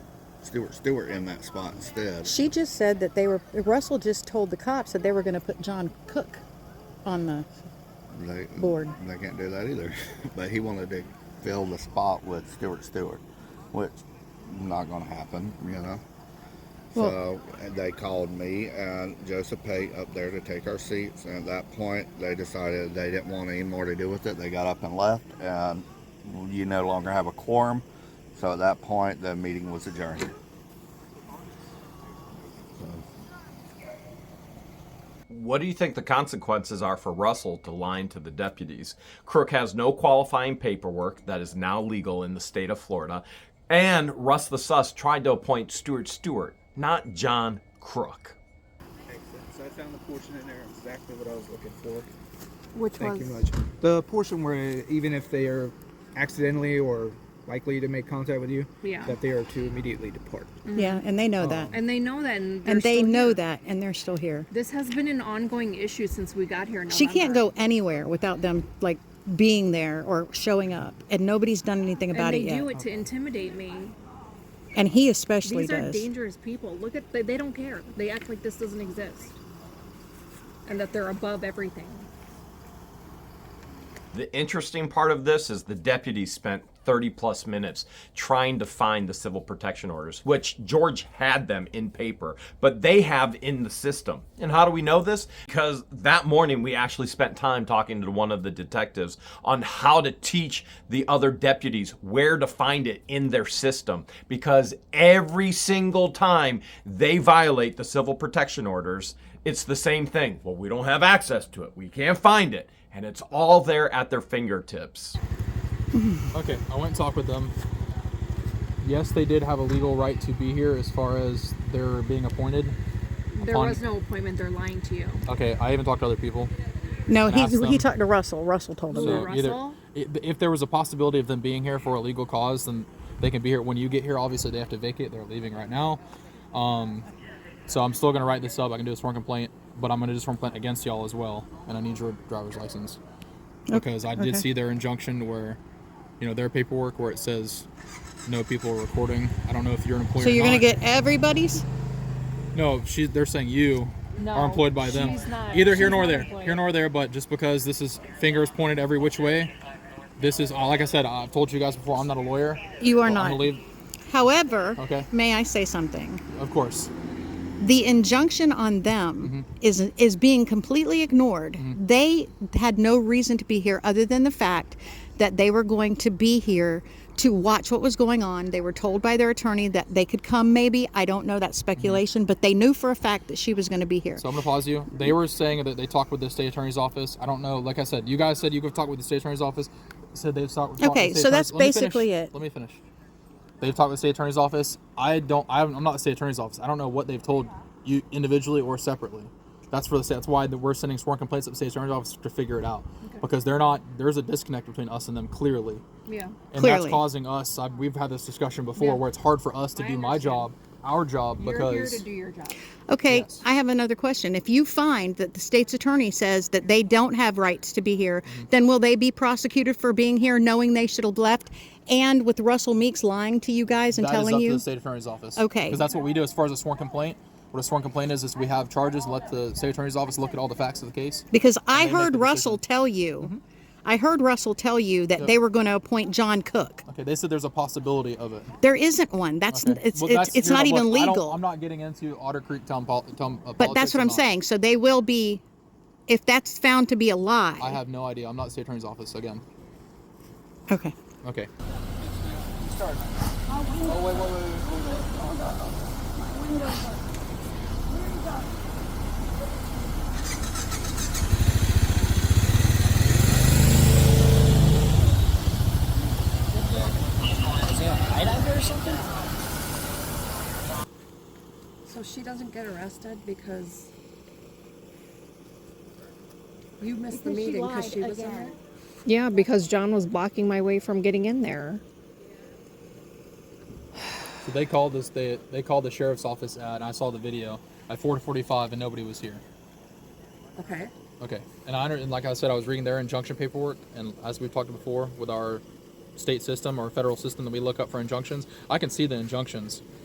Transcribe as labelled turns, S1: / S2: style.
S1: Stuart Stewart in that spot instead.
S2: She just said that they were, Russell just told the cops that they were going to put John Cook on the,
S1: They,
S2: Board.
S1: They can't do that either. but he wanted to fill the spot with Stewart Stewart, which not going to happen, you know.
S2: Well-
S1: so and they called me and Joseph Pate up there to take our seats. And at that point, they decided they didn't want any more to do with it. They got up and left, and you no longer have a quorum. So at that point, the meeting was adjourned.
S3: What do you think the consequences are for Russell to lying to the deputies? Crook has no qualifying paperwork that is now legal in the state of Florida, and Russ the Sus tried to appoint Stuart Stewart, not John Crook.
S4: So I found the portion in there exactly what I was looking for.
S5: Which
S4: Thank
S5: was
S4: you much. The portion where even if they are accidentally or likely to make contact with you,
S6: Yeah.
S4: that they are to immediately depart.
S2: yeah, and they
S4: Oh.
S2: know that.
S6: And they know that. And, they're
S2: And they
S6: still
S2: know
S6: here. Oh,
S2: that, and they're still here.
S6: This has been an ongoing issue since we got here. In
S2: She can't
S6: November.
S2: go anywhere without them, like, being there or showing up, and nobody's done anything about
S6: And
S2: it
S6: they do
S2: yet.
S6: it to intimidate me.
S2: And he especially
S6: These are
S2: does.
S6: dangerous people. Look at they, they don't care. They act like this doesn't exist, and that they're above everything.
S3: The interesting part of this is the deputies spent 30 plus minutes trying to find the civil protection orders, which George had them in paper, but they have in the system. And how do we know this? Because that morning we actually spent time talking to one of the detectives on how to teach the other deputies where to find it in their system. Because every single time they violate the civil protection orders, it's the same thing. Well, we don't have access to it, we can't find it and it's all there at their fingertips.
S7: Okay, I went and talked with them. Yes, they did have a legal right to be here as far as their being appointed.
S6: There
S7: Upon-
S6: was no appointment. They're lying to you.
S7: Okay, I even talked to other people.
S2: no,
S7: and
S2: he,
S7: ask
S2: he
S7: them.
S2: talked to Russell. Russell told him.
S7: So
S2: that.
S6: Russell?
S7: either i- if there was a possibility of them being here for a legal cause, then they can be here. When you get here, obviously they have to vacate. They're leaving right now. Um, so I'm still gonna write this up. I can do a sworn complaint, but I'm gonna do a sworn complaint against y'all as well, and I need your driver's license because I did see their injunction where, you know, their paperwork where it says no people are recording. I don't know if you're an employer.
S2: So
S7: or
S2: you're going to
S7: not.
S2: get everybody's?
S7: No, she, they're saying you
S6: No,
S7: are employed by them.
S6: she's not-
S7: Either here
S6: she's
S7: nor
S6: not
S7: there.
S6: employed.
S7: Here nor there, but just because this is fingers pointed every which way, this is, uh, like I said, I've told you guys before, I'm not a lawyer.
S2: You are
S7: Well, I'm
S2: not.
S7: gonna leave-
S2: However,
S7: Okay.
S2: may I say something?
S7: Of course.
S2: the injunction on
S7: Mm-hmm.
S2: them is is being completely ignored. They had no reason to be here other than the fact that they were going to be here to watch what was going on. They were told by their attorney that they could come maybe. I don't know that speculation, but they knew for a fact that she was going to be here.
S7: Mm-hmm. So I'm going to pause you. They were saying that they talked with the state attorney's office. I don't know. Like I said, you guys said you could talk with the state attorney's office. Said they've talked. talked
S2: Okay,
S7: with the state
S2: so that's
S7: attorney's- Let me
S2: basically
S7: finish.
S2: it.
S7: Let me finish. They've talked with the state attorney's office. I don't. I haven't- I'm not the state attorney's office. I don't know what they've told you individually or separately. That's for the state. That's why that we're sending sworn complaints to the state attorney's office to figure it out because they're not. There's a disconnect between us and them clearly,
S6: Yeah.
S7: and
S2: Clearly.
S7: that's causing us. I, we've had this discussion before
S6: Yeah.
S7: where it's hard for us to
S6: I
S7: do my
S6: understand.
S7: job, our job,
S6: You're here
S7: because
S6: to do your job.
S2: Okay,
S7: Yes.
S2: I have another question. If you find that the state's attorney says that they don't have rights to be here,
S7: Mm-hmm.
S2: then will they be prosecuted for being here knowing they should have left and with Russell Meeks lying to you guys and
S7: That is
S2: telling
S7: up
S2: you
S7: to the state attorney's office.
S2: Okay.
S7: Because that's what we do as far as a sworn complaint. What a sworn complaint is is we have charges. Let the state attorney's office look at all the facts of the case.
S2: Because I
S7: they make Mm-hmm.
S2: heard
S7: the
S2: Russell tell you, I heard Russell tell you that they were going to appoint John Cook.
S7: Okay. They said there's a possibility of it.
S2: There isn't one. That's
S7: Okay.
S2: it's
S7: Well,
S2: it's,
S7: that's-
S2: it's
S7: here's
S2: not
S7: what-
S2: even
S7: I don't-
S2: legal.
S7: I'm not getting into Otter Creek town, pol- town uh,
S2: but that's
S7: politics
S2: what
S7: or
S2: I'm
S7: not.
S2: saying. So they will be, if that's found to be a lie.
S7: I have no idea. I'm not the state attorney's office again.
S2: okay.
S7: Okay.
S6: So she doesn't get arrested because you missed the meeting because she, was there.
S8: Yeah, because John was blocking my way from getting in there.
S7: So they called this. They they called the sheriff's office at. And I saw the video at 4:45 and nobody was here.
S6: Okay.
S7: Okay, and I under- and like I said, I was reading their injunction paperwork, and as we've talked before, with our state system or federal system that we look up for injunctions, I can see the injunctions.